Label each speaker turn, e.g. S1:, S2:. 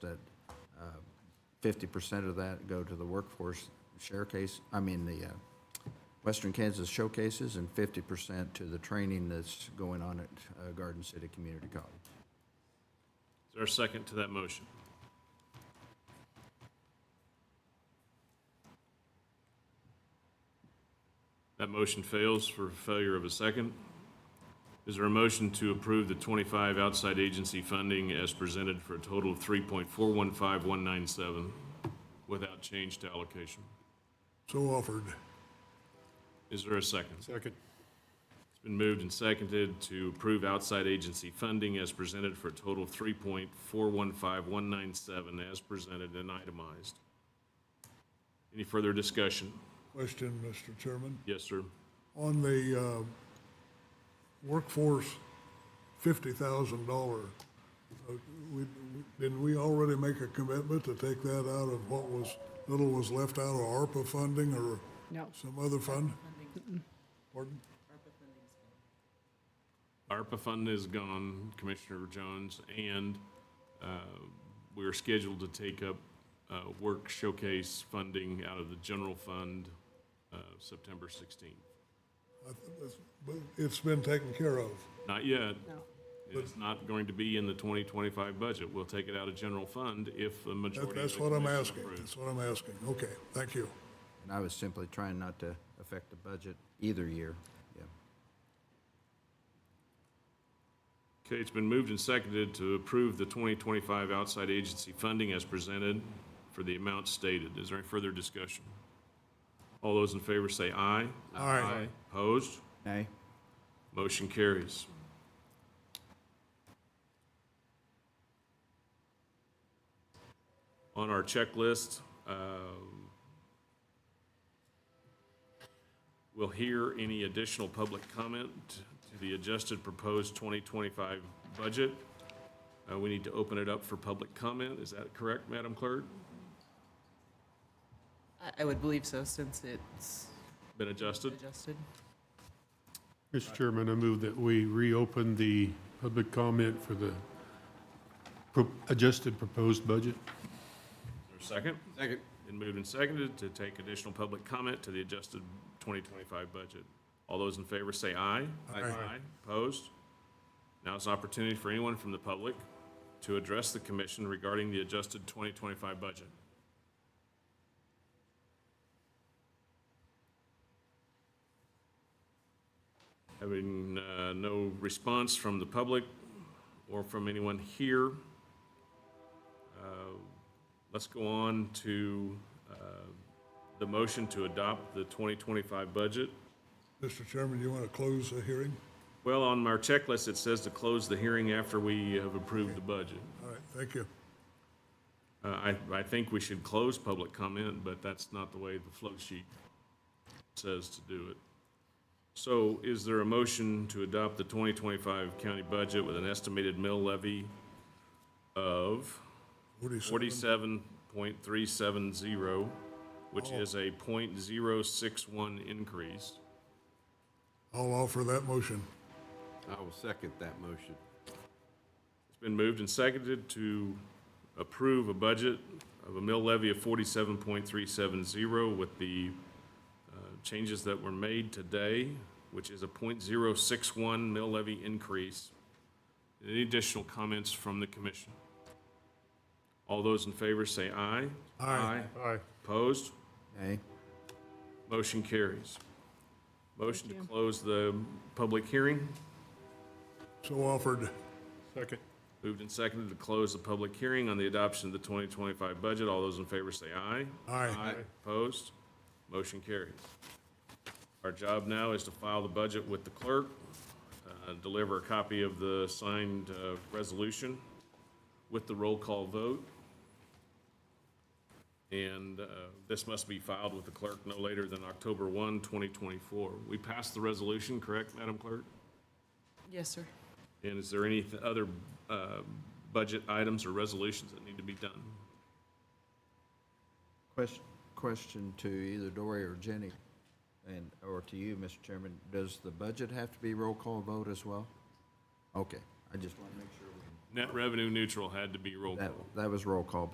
S1: that uh, fifty percent of that go to the workforce showcase, I mean, the uh, Western Kansas showcases, and fifty percent to the training that's going on at uh, Garden City Community College.
S2: Is there a second to that motion? That motion fails for failure of a second. Is there a motion to approve the 25 outside agency funding as presented for a total of 3.415197 without change to allocation?
S3: So offered.
S2: Is there a second?
S3: Second.
S2: It's been moved and seconded to approve outside agency funding as presented for a total of three point four one five one nine seven as presented and itemized. Any further discussion?
S3: Question, Mr. Chairman.
S2: Yes, sir.
S3: On the uh, workforce, $50,000, uh, we- didn't we already make a commitment to take that out of what was, little was left out of ARPA funding or
S4: No.
S3: some other fund? Pardon?
S2: ARPA fund is gone, Commissioner Jones, and uh, we are scheduled to take up uh, work showcase funding out of the general fund uh, September 16th.
S3: I th- that's- But it's been taken care of.
S2: Not yet.
S4: No.
S2: It's not going to be in the 2025 budget. We'll take it out of general fund if the
S3: That-
S2: majority. of
S3: That's
S2: the
S3: what I'm
S2: commission
S3: asking.
S2: approves.
S3: That's what I'm asking. Okay, thank you.
S1: And I was simply trying not to affect the budget either year, yeah.
S2: Okay, it's been moved and seconded to approve the 2025 outside agency funding as presented for the amount stated. Is there any further discussion? All those in favor say aye.
S3: Aye.
S2: Opposed?
S1: Nay?
S2: Motion carries. On our checklist, uh, we'll hear any additional public comment to the adjusted proposed 2025 budget. Uh, We need to open it up for public comment. Is that correct, Madam Clerk?
S5: I- I would believe so, since it's
S2: Been adjusted?
S5: adjusted.
S6: Mr. Chairman, I move that we reopen the public comment for the pro- adjusted proposed budget.
S2: Is there a second? Second. Been moved and seconded to take additional public comment to the adjusted 2025 budget. All those in favor say aye.
S3: Aye.
S2: Opposed? Now is an opportunity for anyone from the public to address the commission regarding the adjusted 2025 budget. Having uh, no response from the public or from anyone here, uh, Let's go on to uh, the motion to adopt the 2025 budget.
S3: Mr. Chairman, you want to close the hearing?
S2: Well, on our checklist, it says to close the hearing after we have approved the budget.
S3: All right, thank you.
S2: Uh, I, I think we should close public comment, but that's not the way the flow sheet says to do it. So is there a motion to adopt the 2025 county budget with an estimated mill levy of?
S3: Forty-seven.
S2: forty-seven point three seven zero, which is a point zero six one increase.
S3: I'll offer that motion.
S7: I will second that motion.
S2: It's been moved and seconded to approve a budget of a mill levy of forty-seven point three seven zero with the uh, changes that were made today, which is a point zero six one mill levy increase. Any additional comments from the commission? All those in favor say aye.
S3: Aye.
S6: Aye.
S2: Opposed?
S1: Nay?
S2: Motion carries. Motion to close the public hearing.
S3: So offered.
S6: Second.
S2: Moved and seconded to close the public hearing on the adoption of the 2025 budget. All those in favor say aye.
S3: Aye.
S2: Opposed? Motion carries. Our job now is to file the budget with the clerk, uh, deliver a copy of the signed uh, resolution with the roll call vote. And uh, this must be filed with the clerk no later than October 1, 2024. We passed the resolution, correct, Madam Clerk?
S5: Yes, sir.
S2: And is there any th- other uh, budget items or resolutions that need to be done?
S1: Question, question to either Dory or Jenny, and, or to you, Mr. Chairman, does the budget have to be roll call vote as well? Okay, I just want to make sure we
S2: net revenue neutral had to be roll
S1: That,
S2: call.
S1: that was roll call